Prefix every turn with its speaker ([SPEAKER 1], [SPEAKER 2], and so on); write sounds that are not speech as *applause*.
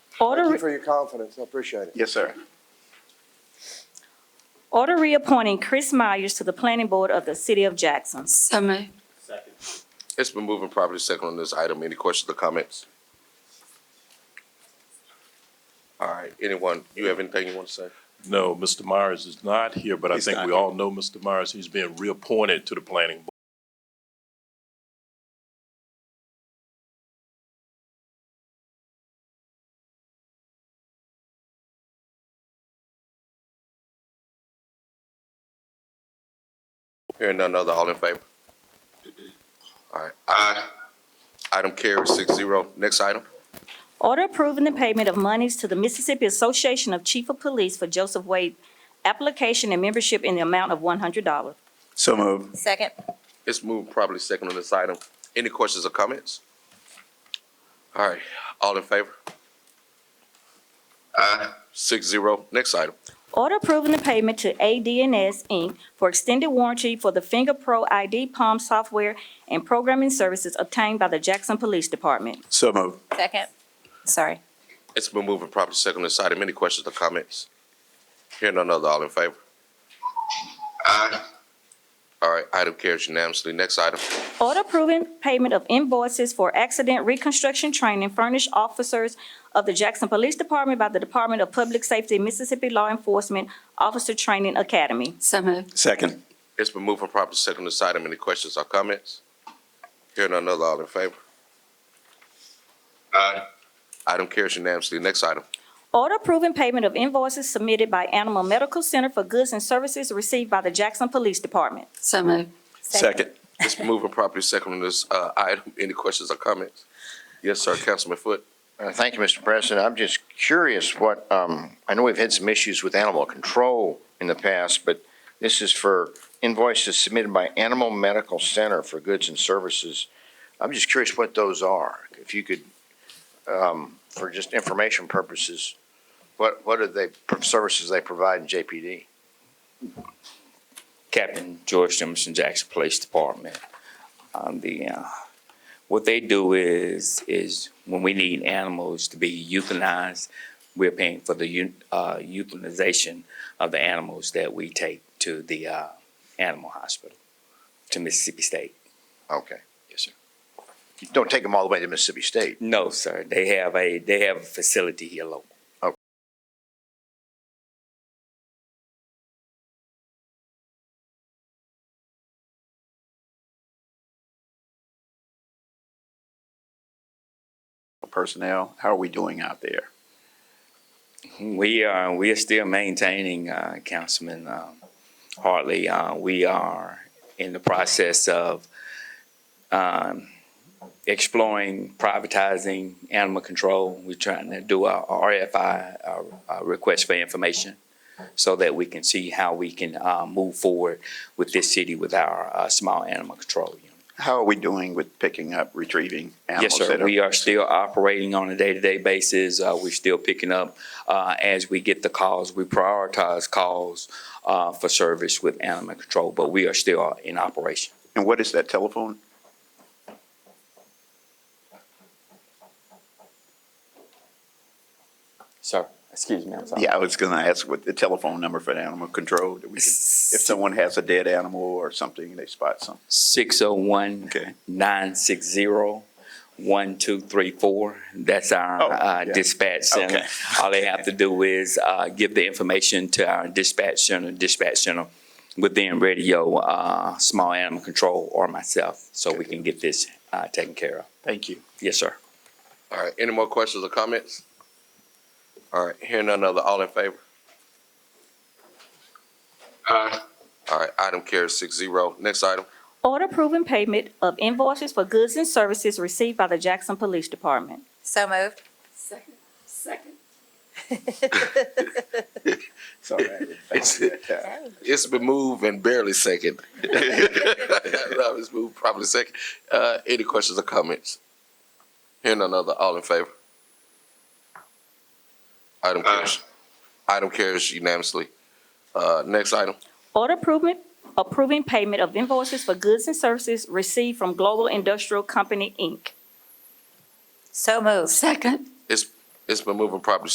[SPEAKER 1] Order-
[SPEAKER 2] you for your confidence. I appreciate it.
[SPEAKER 3] Yes, sir.
[SPEAKER 1] Order reappointing Chris Myers to the Planning Board of the City of Jackson.
[SPEAKER 4] So moved.
[SPEAKER 5] It's been moved and properly second on this item. Any questions or comments? All right, anyone, you have anything you want to say?
[SPEAKER 6] No, Mr. Myers is not here, but I
[SPEAKER 3] He's
[SPEAKER 6] think
[SPEAKER 3] not
[SPEAKER 6] we
[SPEAKER 3] here.
[SPEAKER 6] all know Mr. Myers. He's being reappointed to the planning board.
[SPEAKER 5] Hearing none other, all in favor? All right. Aye. Item carries six zero. Next item.
[SPEAKER 1] Order approving the payment of monies to the Mississippi Association of Chief of Police for Joseph Wade application and membership in the amount of $100.
[SPEAKER 3] So moved.
[SPEAKER 4] Second.
[SPEAKER 5] It's moved and properly second on this item. Any questions or comments? All right, all in favor? Aye. Six zero. Next item.
[SPEAKER 1] Order approving the payment to ADNS Inc. for extended warranty for the Finger Pro ID Palm software and programming services obtained by the Jackson Police Department.
[SPEAKER 3] So moved.
[SPEAKER 4] Second. Sorry.
[SPEAKER 5] It's been moved and properly second on this item. Any questions or comments? Hearing none other, all in favor? Aye. All right, item carries unanimously. Next item.
[SPEAKER 1] Order approving payment of invoices for accident reconstruction training furnished officers of the Jackson Police Department by the Department of Public Safety Mississippi Law Enforcement Officer Training Academy.
[SPEAKER 4] So moved.
[SPEAKER 3] Second.
[SPEAKER 5] It's been moved and properly second on this item. Any questions or comments? Hearing none other, all in favor? Aye. Item carries unanimously. Next item.
[SPEAKER 1] Order approving payment of invoices submitted by Animal Medical Center for goods and services received by the Jackson Police Department.
[SPEAKER 4] So moved.
[SPEAKER 3] Second.
[SPEAKER 5] It's been moved and properly second on this uh, item. Any questions or comments? Yes, sir, Councilman Foot.
[SPEAKER 7] Uh, Thank you, Mr. President. I'm just curious what, um, I know we've had some issues with animal control in the past, but this is for invoices submitted by Animal Medical Center for goods and services. I'm just curious what those are. If you could, um, for just information purposes, what, what are they, services they provide in JPD?
[SPEAKER 8] Captain George Jemison Jackson Police Department. Um, the, uh, what they do is, is when we need animals to be euthanized, we're paying for the eu- uh, euthanization of the animals that we take to the, uh, animal hospital, to Mississippi State.
[SPEAKER 7] Okay.
[SPEAKER 8] Yes, sir.
[SPEAKER 7] You Don't take them all the way to Mississippi State.
[SPEAKER 8] No, sir, they have a, they have a facility here local.
[SPEAKER 3] Personnel, how are we doing out there?
[SPEAKER 8] We are, we are still maintaining, uh, Councilman, um, Hartley, uh, we are in the process of, um, exploring privatizing animal control. We're trying to do a RFI, a, a request for information, so that we can see how we can, uh, move forward with this city with our, uh, small animal control unit.
[SPEAKER 3] How are we doing with picking up, retrieving
[SPEAKER 8] Yes,
[SPEAKER 3] animals? that
[SPEAKER 8] sir.
[SPEAKER 3] are-
[SPEAKER 8] We are still operating on a day-to-day basis. Uh, we're still picking up, uh, as we get the calls. We prioritize calls, uh, for service with animal control, but we are still in operation.
[SPEAKER 3] And what is that telephone?
[SPEAKER 8] Sir, excuse me, I'm sorry.
[SPEAKER 3] Yeah, I was gonna ask what the telephone number for the animal control. that we can- If someone has a dead animal or something, they spot something.
[SPEAKER 8] Six oh one
[SPEAKER 3] Okay.
[SPEAKER 8] nine six zero one two three four. That's our
[SPEAKER 3] Oh,
[SPEAKER 8] uh,
[SPEAKER 3] yeah.
[SPEAKER 8] dispatch center.
[SPEAKER 3] Okay.
[SPEAKER 8] All they have to do is uh, give the information to our dispatch center, dispatch center within radio, uh, small animal control or myself, so we can get this uh, taken care of.
[SPEAKER 3] Thank you.
[SPEAKER 8] Yes, sir.
[SPEAKER 5] All right, any more questions or comments? All right, hearing none other, all in favor? Aye. All right, item carries six zero. Next item.
[SPEAKER 1] Order approving payment of invoices for goods and services received by the Jackson Police Department.
[SPEAKER 4] So moved.
[SPEAKER 3] Sorry. I didn't think of that.
[SPEAKER 5] It's been moved and barely second. *laughs* No, it's moved properly second. Uh, any questions or comments? Hearing none other, all in favor? Item carries, item carries unanimously. Uh, next item.
[SPEAKER 1] Order approving, approving payment of invoices for goods and services received from Global Industrial Company, Inc.
[SPEAKER 4] So moved.
[SPEAKER 5] It's been moved and properly